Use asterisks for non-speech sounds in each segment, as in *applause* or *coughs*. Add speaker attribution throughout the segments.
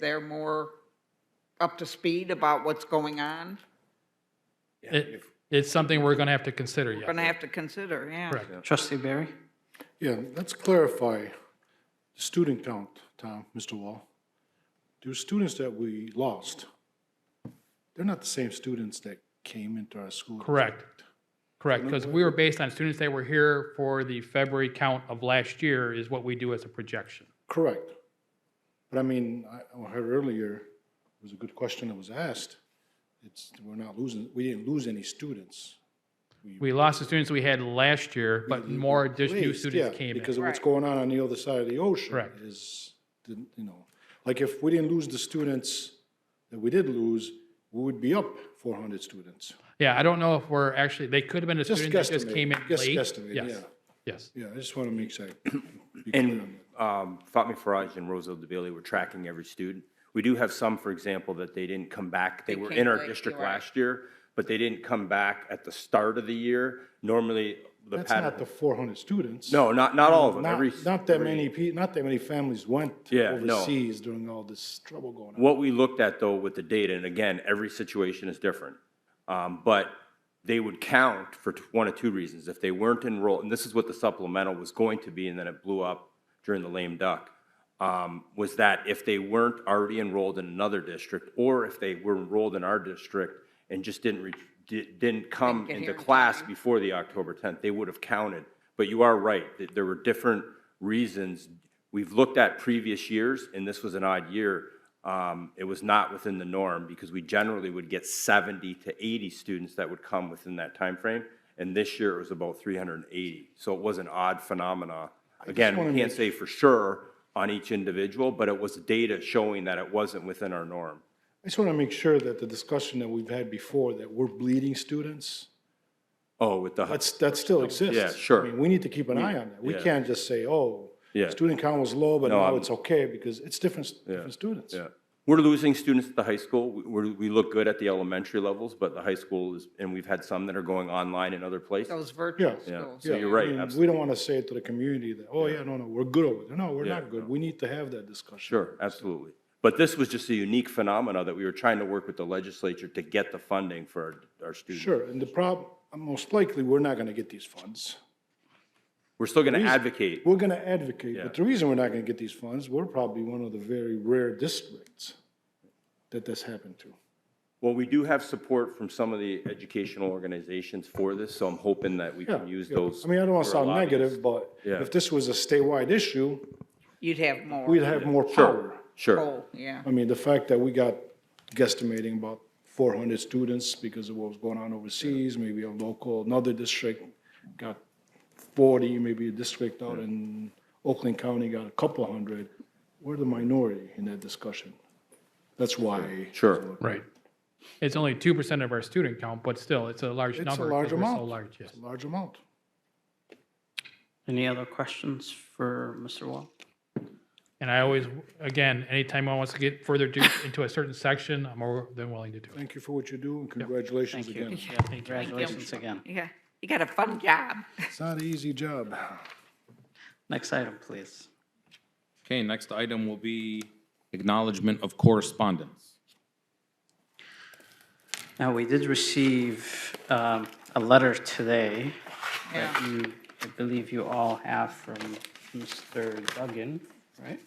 Speaker 1: they're more up to speed about what's going on?
Speaker 2: It, it's something we're going to have to consider,
Speaker 1: We're
Speaker 2: yeah.
Speaker 1: Going to have to consider, yeah.
Speaker 2: Correct.
Speaker 3: Trustee Barry?
Speaker 4: Yeah, let's clarify student count, Tom, Mr. Wall. There's students that we lost. They're not the same students that came into our school.
Speaker 2: Correct. Correct, because we were based on students that were here for the February count of last year is what we do as a projection.
Speaker 4: Correct. But I mean, I I heard earlier, it was a good question that was asked. It's, we're not losing, we didn't lose any students.
Speaker 2: We lost the students we had last year, but more just new
Speaker 4: Please,
Speaker 2: students
Speaker 4: yeah,
Speaker 2: came
Speaker 4: Because
Speaker 2: in.
Speaker 4: of what's going on on the other side of the ocean.
Speaker 2: Correct.
Speaker 4: Is, the- you know, like if we didn't lose the students that we did lose, we would be up 400 students.
Speaker 2: Yeah, I don't know if we're actually, they could have been a
Speaker 4: Just
Speaker 2: student that just
Speaker 4: guesstimate,
Speaker 2: came in
Speaker 4: just
Speaker 2: late.
Speaker 4: guesstimate,
Speaker 2: Yes,
Speaker 4: yeah.
Speaker 2: Yes,
Speaker 4: Yeah, I just want to
Speaker 5: *coughs*
Speaker 4: make sure.
Speaker 5: And um, Fatmi Faraj and Roosevelt DeBailey were tracking every student. We do have some, for example, that they didn't come back. They were in our district last year, but they didn't come back at the start of the year. Normally, the
Speaker 4: That's not the
Speaker 5: pattern.
Speaker 4: 400 students.
Speaker 5: No, not, not all of them.
Speaker 4: Not,
Speaker 5: Every,
Speaker 4: not that many, pe- not that many families went
Speaker 5: Yeah, no.
Speaker 4: overseas during all this trouble going on.
Speaker 5: what we looked at though with the data, and again, every situation is different. um, But they would count for t- one of two reasons. If they weren't enrolled, and this is what the supplemental was going to be, and then it blew up during the lame duck, um, was that if they weren't already enrolled in another district, or if they were enrolled in our district and just didn't, re- di- didn't come
Speaker 1: get
Speaker 5: into
Speaker 1: here in
Speaker 5: class before the October 10th, they would have counted. But you are right, that there were different reasons. We've looked at previous years, and this was an odd year. Um, It was not within the norm, because we generally would get 70 to 80 students that would come within that time frame, and this year it was about 380. So it was an odd phenomena. Again, we can't say for sure on each individual, but it was data showing that it wasn't within our norm.
Speaker 4: I just want to make sure that the discussion that we've had before, that we're bleeding students,
Speaker 5: Oh, with the,
Speaker 4: That's, that still exists.
Speaker 5: Yeah, sure.
Speaker 4: I mean, we need to keep an eye on that. We
Speaker 5: yeah.
Speaker 4: can't just say, oh,
Speaker 5: Yeah.
Speaker 4: student count was low, but now
Speaker 5: I'm-
Speaker 4: it's okay, because it's different, different students.
Speaker 5: Yeah. We're losing students at the high school. We- We're, we look good at the elementary levels, but the high school is, and we've had some that are going online in other places.
Speaker 1: Those virtual
Speaker 4: Yeah.
Speaker 1: schools.
Speaker 5: So
Speaker 4: Yeah,
Speaker 5: you're
Speaker 4: I
Speaker 5: right,
Speaker 4: mean,
Speaker 5: absolutely.
Speaker 4: We don't want to say it to the community that, oh, yeah, no, no, we're good over there. No, we're
Speaker 5: Yeah,
Speaker 4: not good. We need to have that discussion.
Speaker 5: Sure, absolutely. But this was just a unique phenomena that we were trying to work with the legislature to get the funding for our, our students.
Speaker 4: Sure, and the problem, most likely, we're not going to get these funds.
Speaker 5: We're still going to advocate.
Speaker 4: We're going to advocate, but the reason we're not going to get these funds, we're probably one of the very rare districts that this happened to.
Speaker 5: Well, we do have support from some of the educational organizations for this, so I'm hoping that we can
Speaker 4: Yeah,
Speaker 5: use
Speaker 4: yeah.
Speaker 5: those.
Speaker 4: I mean, I don't want to
Speaker 5: for our
Speaker 4: sound
Speaker 5: lobbyist.
Speaker 4: negative, but
Speaker 5: Yeah.
Speaker 4: if this was a statewide issue,
Speaker 1: You'd have more.
Speaker 4: we'd have more power.
Speaker 5: Sure, sure.
Speaker 1: Oh, yeah.
Speaker 4: I mean, the fact that we got guesstimating about 400 students because of what was going on overseas, maybe a local, another district got 40, maybe a district out in Oakland County got a couple hundred. We're the minority in that discussion. That's why.
Speaker 5: Sure.
Speaker 2: right. It's only 2% of our student count, but still, it's a large
Speaker 4: It's a
Speaker 2: number.
Speaker 4: large
Speaker 2: 'cause we're so
Speaker 4: amount.
Speaker 2: large, yes.
Speaker 4: It's a large amount.
Speaker 3: Any other questions for Mr. Wall?
Speaker 2: And I always, again, anytime one wants to get further do- into a certain section, I'm more than willing to do it.
Speaker 4: Thank you for what you do and congratulations
Speaker 3: Thank you.
Speaker 4: again.
Speaker 3: Yeah, Congratulations again.
Speaker 1: Yeah, you got a fun job.
Speaker 4: It's not an easy job.
Speaker 3: Next item, please.
Speaker 6: Okay, next item will be acknowledgement of correspondence.
Speaker 3: Now, we did receive um, a letter today that
Speaker 1: Yeah.
Speaker 3: you, I believe you all have from Mr. Duggan, right?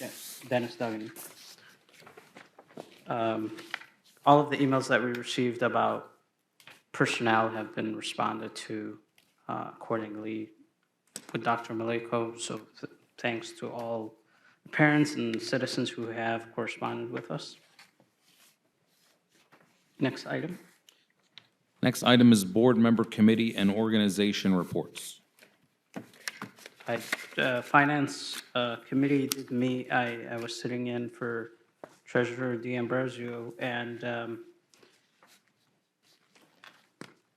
Speaker 3: Yes, Dennis Duggan. Um, All of the emails that we received about personnel have been responded to uh, accordingly with Dr. Maleko. So th- thanks to all parents and citizens who have corresponded with us. Next item.
Speaker 6: Next item is board member committee and organization reports.
Speaker 3: I, uh, Finance uh, Committee did meet, I, I was sitting in for Treasurer D'Ambrosio, and um,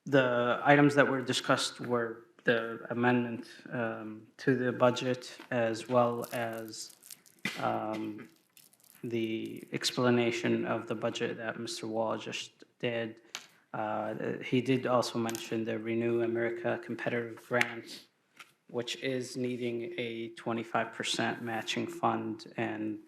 Speaker 3: the items that were discussed were the amendment um, to the budget, as well as um, the explanation of the budget that Mr. Wall just did. Uh, He did also mention the Renew America Competitive Grant, which is needing a 25% matching fund and